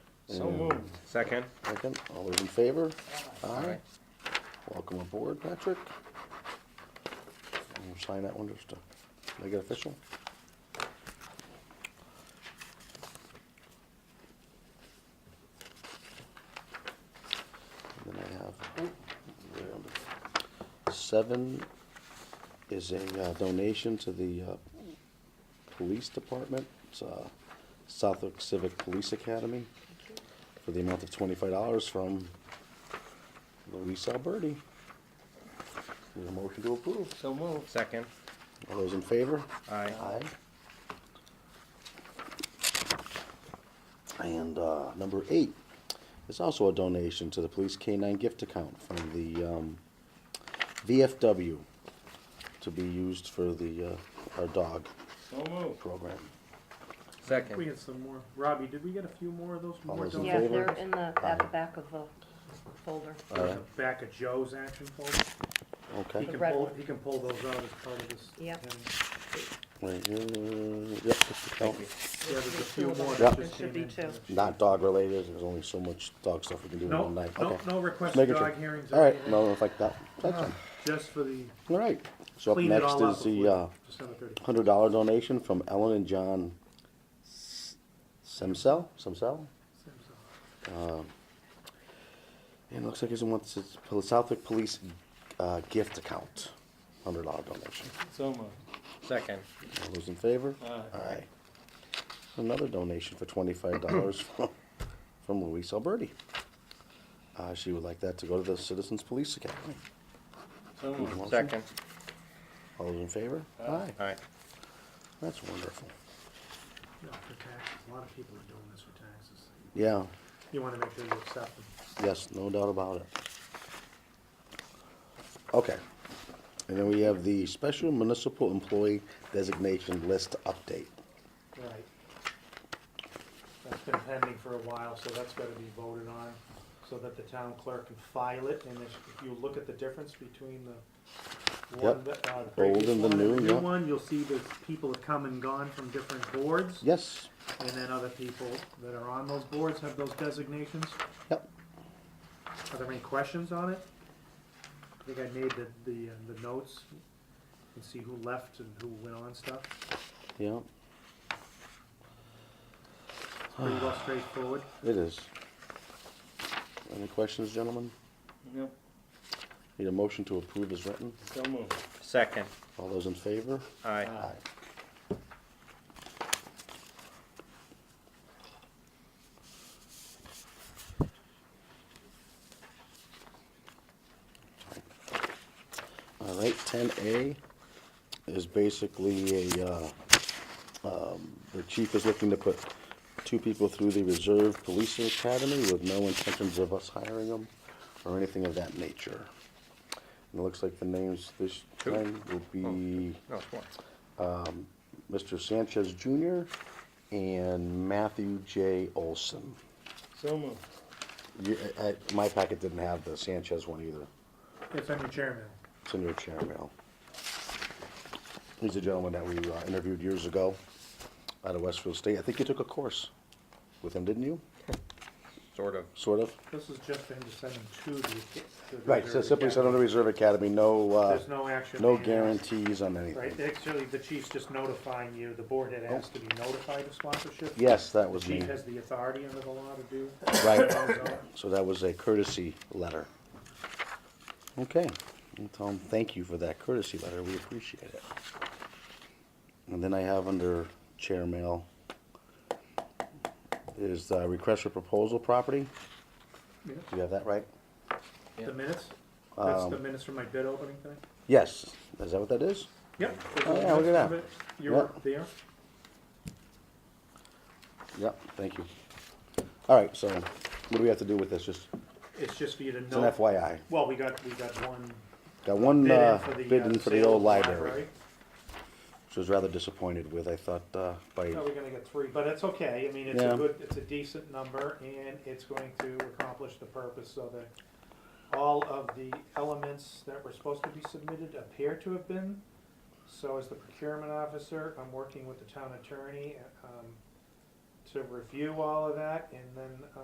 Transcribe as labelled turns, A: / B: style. A: So
B: Mm.
A: moved.
C: Second?
B: Second, all those in favor? Aye. Welcome aboard, Patrick. And we'll sign that one just to make it official. And Then I have, um, seven is a uh, donation to the uh, police department, it's uh, Southwick Civic Police Academy for the amount of twenty-five dollars from Luis Alberti. Need a motion to approve.
A: So moved.
C: Second?
B: All those in favor?
C: Aye.
B: Aye. And, uh, number eight is also a donation to the police K-9 gift account from the, um, VFW to be used for the, uh, our dog
A: So moved.
B: program.
D: We
C: Second?
D: get some more. Robbie, did we get a few more of those?
B: All
D: More
B: those in
D: donations?
E: Yeah,
B: favor?
E: they're in the, at the back of the folder.
D: There's a Back of Joe's action folder. He
B: Okay.
D: can
E: red
D: pull,
E: one.
D: he can pull those out as part of this.
E: Yep.
D: thing.
B: Right, uh, yep, gift account.
D: Yeah, there's a few
E: There's
D: more
E: two
D: that
E: of them.
D: just
E: There
D: came in.
E: should be two.
B: Not dog related, there's only so much dog stuff we can do in
D: No,
B: one night.
D: no,
B: Okay.
D: no requests
B: Make it
D: dog
B: two.
D: hearings
B: All
D: or
B: right,
D: anything,
B: no, it's like that. That's fine.
D: just for the,
B: All right. So up
D: clean it
B: next
D: all up
B: is the uh,
D: before December thirty.
B: hundred dollar donation from Ellen and John S- Semsel, Semsel? And it looks like it's one, it's the Southwick Police uh, gift account, hundred dollar donation.
A: So moved.
C: Second?
B: All those in favor?
A: Aye.
B: Aye. Another donation for twenty-five dollars from, from Louise Alberti. Uh, she would like that to go to the Citizens Police Academy.
A: So
B: Need a
A: moved.
B: motion?
C: Second?
B: All those in favor? Aye.
C: Aye.
B: That's wonderful.
D: No, for taxes. A lot of people are doing this for taxes.
B: Yeah,
D: You wanna make sure you accept them.
B: yes, no doubt about it. Okay. And then we have the Special Municipal Employee Designation List Update.
D: Right. That's been pending for a while, so that's gotta be voted on, so that the town clerk can file it, and if if you look at the difference between the one,
B: Yep.
D: that, uh, the
B: Old
D: previous
B: and the
D: one
B: new, yeah.
D: one, you'll see that people have come and gone from different boards,
B: Yes,
D: and then other people that are on those boards have those designations.
B: yep,
D: Are there any questions on it? I think I made the, the, uh, the notes, you can see who left and who went on stuff,
B: yep,
D: it's pretty well straightforward.
B: it is. Any questions, gentlemen?
A: Yep.
B: Need a motion to approve as written?
A: So moved.
C: Second?
B: All those in favor?
C: Aye.
B: All right, ten A is basically a, uh, um, the chief is looking to put two people through the Reserve Police Academy with no intentions of us hiring them or anything of that nature. And it looks like the names this
C: Who? Oh.
B: time will be
C: No, it's one.
B: Mr. Sanchez Jr. and Matthew J. Olson.
A: So moved.
B: You, I, I- my packet didn't have the Sanchez one either.
D: It's on your chairman.
B: It's in your chair mail. He's a gentleman that we uh, interviewed years ago out of Westfield State. I think you took a course with him, didn't you?
C: Sort of.
B: Sort of.
D: This is just for him to send them to the. to the
B: Right, so
D: reserve
B: simply send him to
D: academy.
B: Reserve Academy, no, uh,
D: There's no action.
B: no
D: being asked.
B: guarantees on
D: Right,
B: anything.
D: actually, the chief's just notifying you, the board had asked to be notified of sponsorship.
B: Yes, that
D: The
B: was me,
D: chief has the authority under the law to do.
B: right.
D: So,
B: So that was a courtesy letter. Okay, Well, Tom, thank you for that courtesy letter, we appreciate it. And then I have under chair mail is the request for proposal property.
D: yeah.
B: Do you have that right?
D: The minutes, that's
B: Um,
D: the minutes from my bid opening thing?
B: Yes, is that what that is?
D: Yep.
B: Oh, yeah, look at that.
D: You were
B: Yep.
D: there?
B: Yep, thank you. All right, so what do we have to do with this? Just,
D: It's just for you to
B: it's an
D: know.
B: FYI.
D: Well, we got, we got one
B: Got one
D: bid in
B: uh,
D: for the.
B: bid
D: uh,
B: in for the
D: sale of
B: old
D: the
B: library, which I was rather disappointed with, I thought, uh, by,
D: Thought we were gonna get three, but it's okay, I mean, it's
B: Yeah.
D: a good, it's a decent number, and it's going to accomplish the purpose so that all of the elements that were supposed to be submitted appear to have been. So as the procurement officer, I'm working with the town attorney, um, to review all of that, and then,